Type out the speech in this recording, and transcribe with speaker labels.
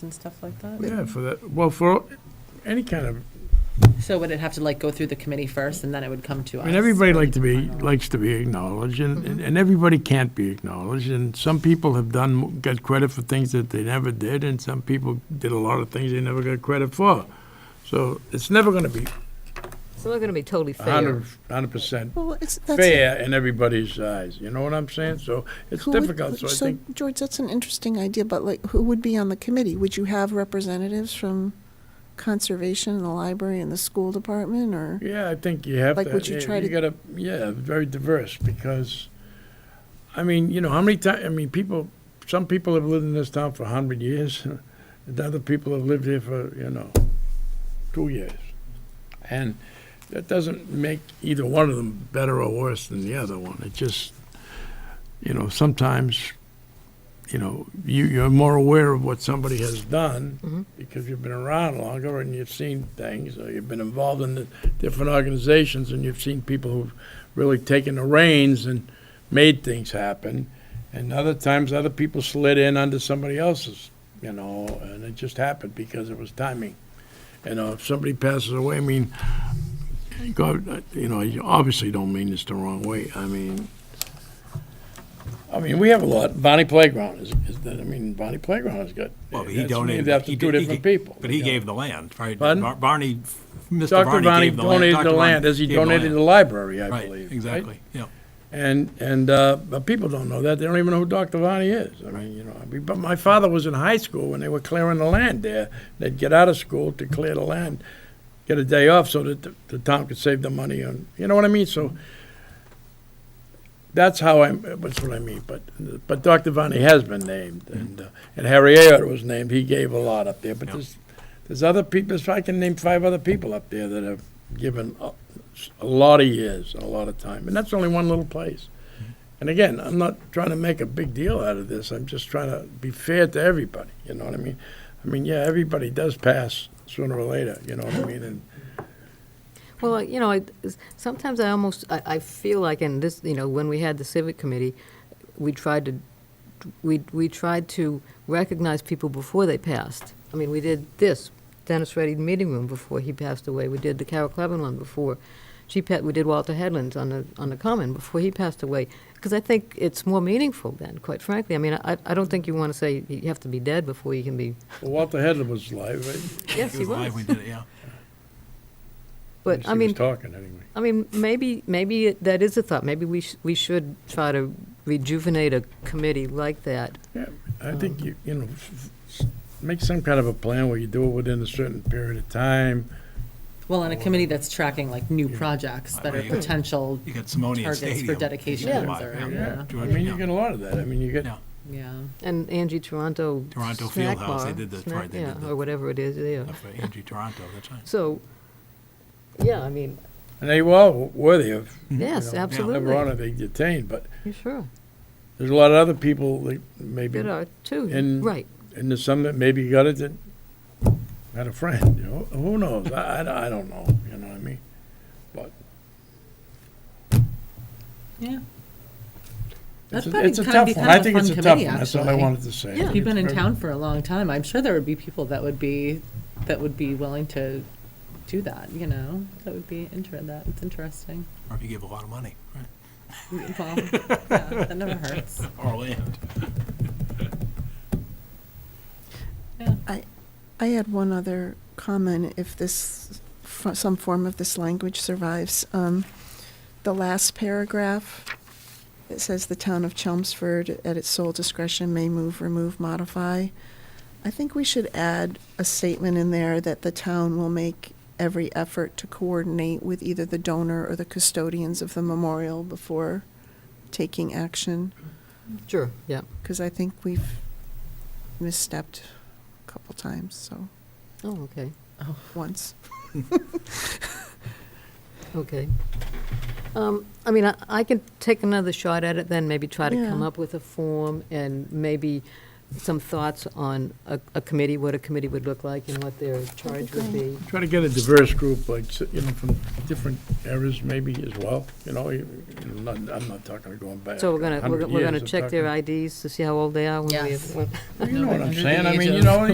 Speaker 1: and stuff like that?
Speaker 2: Yeah, for that, well, for any kind of,
Speaker 1: So would it have to like go through the committee first and then it would come to
Speaker 2: I
Speaker 1: us?
Speaker 2: mean, everybody
Speaker 1: for
Speaker 2: like to be,
Speaker 1: final-
Speaker 2: likes to be acknowledged, and, and- and everybody can't be acknowledged, and some people have done, got credit for things that they never did, and some people did a lot of things they never got credit for. So it's never gonna be
Speaker 3: It's not going to be totally
Speaker 2: a
Speaker 3: fair.
Speaker 2: hundred, hundred percent
Speaker 4: Well, it's, that's.
Speaker 2: fair in everybody's eyes, you know what I'm saying? So it's
Speaker 4: who would-
Speaker 2: difficult, so I think,
Speaker 4: George, that's an interesting idea, but like, who would be on the committee? Would you have representatives from conservation, and the library, and the school department, or?
Speaker 2: yeah, I think you have to.
Speaker 4: Like, would you try to-
Speaker 2: gotta, yeah, very diverse, because, I mean, you know, how many times? I mean, people, some people have lived in this town for a hundred years, and other people have lived here for, you know, two years. And that doesn't make either one of them better or worse than the other one. It just, you know, sometimes, you know, you, you're more aware of what somebody has done because you've been around longer and you've seen things, or you've been involved in the different organizations, and you've seen people who've really taken the reins and made things happen. And other times, other people slid in under somebody else's, you know, and it just happened because it was timing. You know, if somebody passes away, I mean, God, you know, I obviously don't mean this the wrong way. I mean, I mean, we have a lot. Bonnie Playground is, is that, I mean, Bonnie Playground has got.
Speaker 5: Well, but he
Speaker 2: that's
Speaker 5: donated.
Speaker 2: named after
Speaker 5: he
Speaker 2: two
Speaker 5: did- he
Speaker 2: different
Speaker 5: gave-
Speaker 2: people.
Speaker 5: But he
Speaker 2: you know.
Speaker 5: gave the land, right?
Speaker 2: Pardon?
Speaker 5: Bar- Barney, Mr.
Speaker 2: Dr. Bonnie
Speaker 5: Barney gave the land.
Speaker 2: donated
Speaker 5: Dr.
Speaker 2: the land,
Speaker 5: Barney
Speaker 2: as he
Speaker 5: gave the
Speaker 2: donated
Speaker 5: land.
Speaker 2: the library, I believe.
Speaker 5: Right, exactly, yeah.
Speaker 2: And, and, uh, but people don't know that. They don't even know who Dr. Vani is. I mean, you know, I mean, but my father was in high school when they were clearing the land there. They'd get out of school to clear the land, get a day off so that the, the town could save the money on, you know what I mean? So that's how I'm, that's what I mean. But, but Dr. Vani has been named and, uh, and Harry Ayer was named. He gave a lot up there, but
Speaker 5: Yeah.
Speaker 2: there's, there's other people, so I can name five other people up there that have given a, a lot of years, a lot of time. And that's only one little place. And again, I'm not trying to make a big deal out of this. I'm just trying to be fair to everybody. You know what I mean? I mean, yeah, everybody does pass sooner or later. You know what I mean? And
Speaker 3: Well, I- you know, I, sometimes I almost, I, I feel like in this, you know, when we had the civic committee, we tried to, we, we tried to recognize people before they passed. I mean, we did this, Dennis Reddy Meeting Room before he passed away. We did the Carol Cleveland one before she pa we did Walter Headland's on the, on the Common before he passed away. Because I think it's more meaningful then, quite frankly. I mean, I, I don't think you want to say you have to be dead before you can be.
Speaker 2: well, Walter Headland was alive. Right?
Speaker 3: Yes, he
Speaker 5: live when
Speaker 3: was.
Speaker 5: he did it, yeah.
Speaker 2: At
Speaker 3: But
Speaker 2: least
Speaker 3: I
Speaker 2: he
Speaker 3: mean,
Speaker 2: was talking anyway.
Speaker 3: I mean, maybe, maybe it- that is a thought. Maybe we, sh- we should try to rejuvenate a committee like that.
Speaker 2: Yeah,
Speaker 3: Oh.
Speaker 2: I think you you know f- f- make some kind of a plan where you do it within a certain period of time.
Speaker 1: Well, on a committee that's tracking like new projects that are
Speaker 5: Right, yeah.
Speaker 1: potential,
Speaker 5: You got Simonian
Speaker 1: Targets for
Speaker 5: Stadium.
Speaker 1: dedications or- yeah.
Speaker 2: I
Speaker 5: George-
Speaker 2: mean, you
Speaker 5: yeah.
Speaker 2: get a lot of that. I mean, you get
Speaker 5: Yeah.
Speaker 1: yeah.
Speaker 3: And Angie Toronto.
Speaker 5: Toronto Fieldhouse,
Speaker 3: Snack
Speaker 5: they
Speaker 3: Bar,
Speaker 5: did the-
Speaker 3: snack-
Speaker 5: right, they did
Speaker 3: yeah,
Speaker 5: the-
Speaker 3: Or whatever it is, yeah.
Speaker 5: Up for Angie Toronto, that's right.
Speaker 3: So, yeah, I mean,
Speaker 2: And they were all worthy of
Speaker 3: yes,
Speaker 2: you know,
Speaker 3: absolutely.
Speaker 2: Never on it they detained, but
Speaker 3: Yeah, Sure,
Speaker 2: there's a lot of other people that maybe
Speaker 3: there are two,
Speaker 2: And-
Speaker 3: right.
Speaker 2: and there's some that maybe got it that had a friend. You know, who knows? I, I, I don't know. You know what I mean? But
Speaker 1: Yeah.
Speaker 2: it's
Speaker 1: That's
Speaker 2: a,
Speaker 1: probably
Speaker 2: it's a
Speaker 1: kind of
Speaker 2: tough
Speaker 1: be
Speaker 2: one.
Speaker 1: kind
Speaker 2: I
Speaker 1: of a
Speaker 2: think it's
Speaker 1: fun
Speaker 2: a tough
Speaker 1: committee,
Speaker 2: one. That's all I
Speaker 1: actually.
Speaker 2: wanted to say.
Speaker 3: Yeah.
Speaker 1: If you've been in town for a long time, I'm sure there would be people that would be, that would be willing to do that, you know? That would be inter, that, it's interesting.
Speaker 5: Or if you give a lot of money, right,
Speaker 1: Well, yeah, That never hurts.
Speaker 5: or land.
Speaker 4: I had one other comment, if this, f- some form of this language survives. Um, The last paragraph, it says the town of Chelmsford, at its sole discretion, may move, remove, modify. I think we should add a statement in there that the town will make every effort to coordinate with either the donor or the custodians of the memorial before taking action,
Speaker 3: Sure, yeah,
Speaker 4: because I think we've misstepped a couple times, so,
Speaker 3: oh, okay,
Speaker 4: once.
Speaker 3: okay. Um, I mean, I, I can take another shot at it then, maybe try to come
Speaker 4: Yeah.
Speaker 3: up with a form and maybe some thoughts on a, a committee, what a committee would look like and what their charge would
Speaker 4: great.
Speaker 3: be.
Speaker 2: Try to get a diverse group, like you know, from different eras maybe as well. You know, you, you know, not, I'm not talking going back.
Speaker 3: So we're gonna,
Speaker 2: 100
Speaker 3: we're gonna- we're
Speaker 2: years,
Speaker 3: gonna
Speaker 2: I'm
Speaker 3: check
Speaker 2: talking-
Speaker 3: their IDs to see how old they are when we.
Speaker 1: Yes.
Speaker 3: when-
Speaker 2: You know what I'm
Speaker 1: Under the
Speaker 2: saying? I
Speaker 1: age
Speaker 2: mean, you
Speaker 1: of-
Speaker 2: know,